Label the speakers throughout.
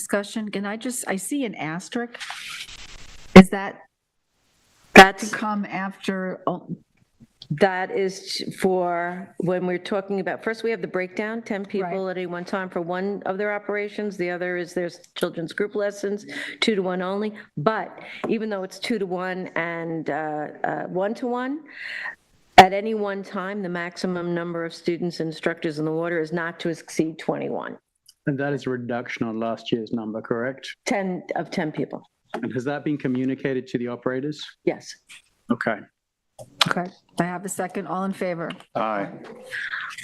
Speaker 1: discussion, can I just, I see an asterisk. Is that to
Speaker 2: That's,
Speaker 1: come after, oh,
Speaker 2: that is for when we're talking about, first we have the breakdown, 10 people
Speaker 1: Right.
Speaker 2: at any one time for one of their operations. The other is there's children's group lessons, two to one only. But even though it's two to one and uh, uh, one to one, at any one time, the maximum number of students and instructors in the water is not to exceed 21,
Speaker 3: And that is a reduction on last year's number, correct?
Speaker 2: 10 of 10 people.
Speaker 3: And has that been communicated to the operators?
Speaker 2: Yes.
Speaker 3: Okay.
Speaker 1: okay, I have a second, all in favor?
Speaker 3: Aye.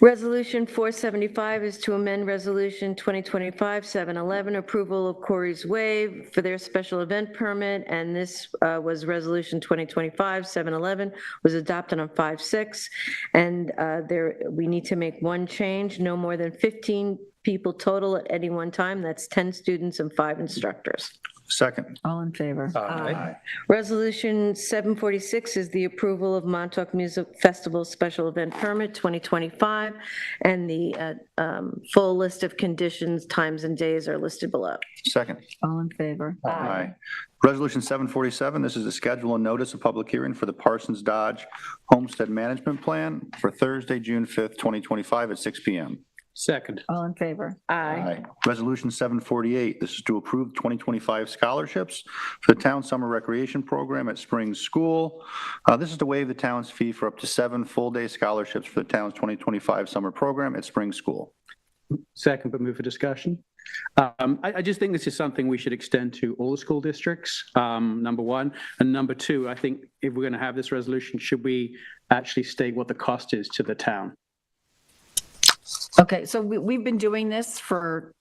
Speaker 2: Resolution 475 is to amend Resolution 2025-711, approval of Corey's Wave for their special event permit, and this uh, was Resolution 2025-711, was adopted on 5/6, and uh, there, we need to make one change, no more than 15 people total at any one time, that's 10 students and five instructors.
Speaker 4: Second.
Speaker 1: All in favor?
Speaker 4: Aye.
Speaker 2: Resolution 746 is the approval of Montauk Music Festival Special Event Permit 2025, and the uh, um, full list of conditions, times, and days are listed below.
Speaker 4: Second.
Speaker 1: All in favor?
Speaker 4: Aye. Resolution 747, this is a schedule and notice of public hearing for the Parsons Dodge Homestead Management Plan for Thursday, June 5th, 2025 at 6 PM.
Speaker 3: Second.
Speaker 1: All in favor?
Speaker 2: Aye.
Speaker 4: Resolution 748, this is to approve 2025 scholarships for the town summer recreation program at Spring School. Uh, This is to waive the town's fee for up to seven full-day scholarships for the town's 2025 summer program at Spring School.
Speaker 3: Second, but move for discussion. Um, I, I just think this is something we should extend to all the school districts, um, number one. And number two, I think if we're going to have this resolution, should we actually state what the cost is to the town?
Speaker 1: Okay, so we, we've been doing this for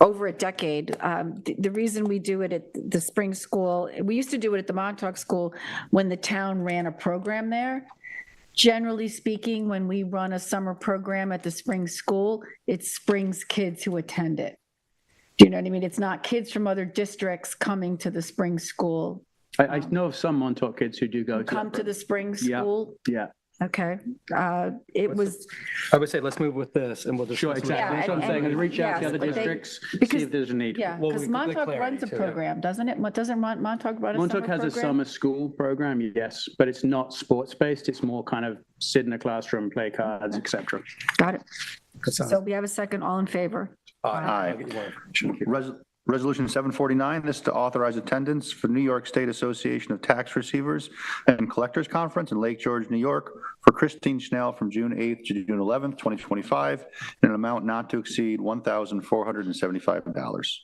Speaker 1: over a decade. Um, the, the reason we do it at the spring school, we used to do it at the Montauk School when the town ran a program there. Generally speaking, when we run a summer program at the spring school, it's Springs kids who attend it. Do you know what I mean? It's not kids from other districts coming to the spring school,
Speaker 3: I, I know of some Montauk kids who do go to. that
Speaker 1: come to the spring
Speaker 3: Yeah.
Speaker 1: school.
Speaker 3: program. Yeah.
Speaker 1: Okay, uh, it was.
Speaker 5: I would say let's move with this and we'll just.
Speaker 3: Sure, exactly. That's what I'm
Speaker 1: and-
Speaker 3: saying. Reach out
Speaker 1: yes,
Speaker 3: to the other
Speaker 1: but they-
Speaker 3: districts, see
Speaker 1: because-
Speaker 3: if there's a need.
Speaker 1: Yeah,
Speaker 5: Well,
Speaker 1: because
Speaker 5: we could
Speaker 1: Montauk
Speaker 5: declare
Speaker 1: runs a
Speaker 5: it, too.
Speaker 1: program, doesn't it? Mo- Doesn't Mon- Montauk run a summer
Speaker 3: Montauk has a
Speaker 1: program?
Speaker 3: summer school program, yes, but it's not sports based. It's more kind of sit in a classroom, play cards, etc.
Speaker 1: Got it. So
Speaker 5: So,
Speaker 1: we have a second, all in favor?
Speaker 4: Aye. Res- Resolution 749, this is to authorize attendance for New York State Association of Tax Receivers and Collectors Conference in Lake George, New York, for Christine Schnell from June 8th to June 11th, 2025, in an amount not to exceed $1,475.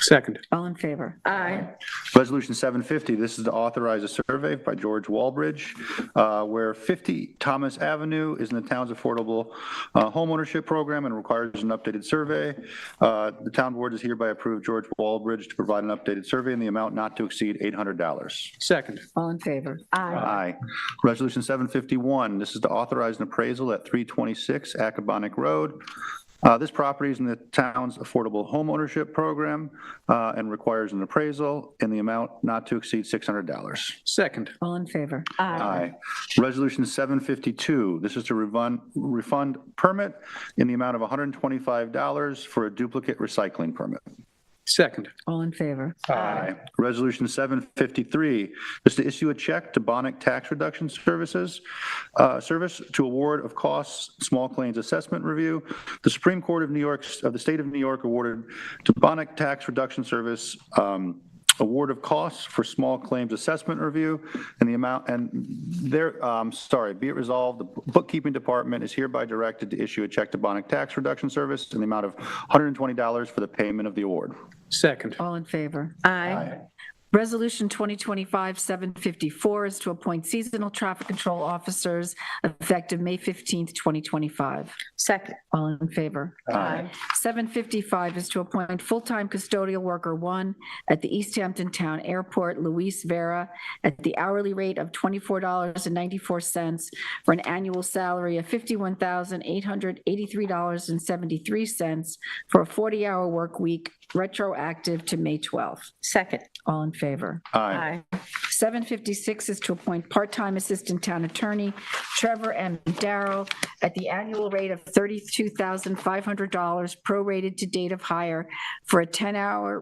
Speaker 3: Second.
Speaker 1: All in favor?
Speaker 2: Aye.
Speaker 4: Resolution 750, this is to authorize a survey by George Walbridge, uh, where 50 Thomas Avenue is in the town's affordable uh, homeownership program and requires an updated survey. Uh, The town board is hereby approve George Walbridge to provide an updated survey in the amount not to exceed $800.
Speaker 3: Second.
Speaker 1: All in favor?
Speaker 4: Aye. Resolution 751, this is to authorize an appraisal at 326 Acabonic Road. Uh, This property is in the town's affordable homeownership program uh, and requires an appraisal in the amount not to exceed $600.
Speaker 3: Second.
Speaker 1: All in favor?
Speaker 4: Aye. Resolution 752, this is to refund, refund permit in the amount of $125 for a duplicate recycling permit.
Speaker 3: Second.
Speaker 1: All in favor?
Speaker 4: Aye. Resolution 753 is to issue a check to Bonic Tax Reduction Services, uh, Service to award of costs, small claims assessment review. The Supreme Court of New York, of the State of New York awarded to Bonic Tax Reduction Service um, award of costs for small claims assessment review and the amount, and there, um, sorry, be it resolved, the bookkeeping department is hereby directed to issue a check to Bonic Tax Reduction Service in the amount of $120 for the payment of the award.
Speaker 3: Second.
Speaker 1: All in favor?
Speaker 2: Aye.
Speaker 1: Resolution 2025-754 is to appoint seasonal traffic control officers effective May 15th, 2025.
Speaker 2: Second.
Speaker 1: All in favor?
Speaker 2: Aye.
Speaker 1: 755 is to appoint full-time custodial worker one at the East Hampton Town Airport, Luis Vera, at the hourly rate of $24.94 for an annual salary of $51,883.73 for a 40-hour work week, retroactive to May 12th.
Speaker 2: Second.
Speaker 1: All in favor?
Speaker 4: Aye.
Speaker 1: 756 is to appoint part-time Assistant Town Attorney Trevor M. Darrow at the annual rate of $32,500 prorated to date of hire for a 10-hour